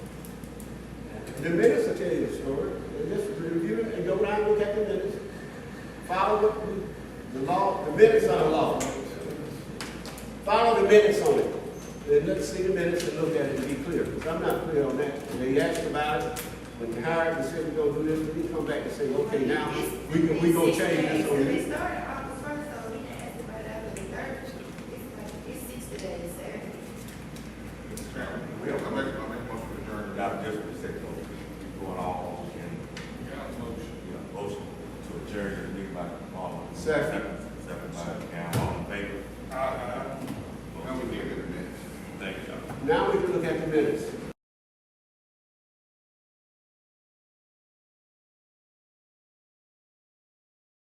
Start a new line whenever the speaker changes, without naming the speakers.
The minutes will tell you the story. And Just review it and go down and look at the minutes. Follow what the, the law, the minutes are the law. Follow the minutes on it. Then let's see the minutes and look at it and be clear, because I'm not clear on that. And They asked about it, when they hired, they said, we're gonna do this, we come back and say, okay, now, we can, we gonna change this on
We
this.
started August first, so we didn't ask about that on the third. It's like, it's sixty days there.
Mr. Chairman, we have, I make, I make a motion to adjourn without just a second, going all in. Yeah, motion to adjourn, the meeting by Marlon.
Second.
Second by Cam, all in favor? Aye. Now we get it, man. Thank you, John.
Now we can look at the minutes.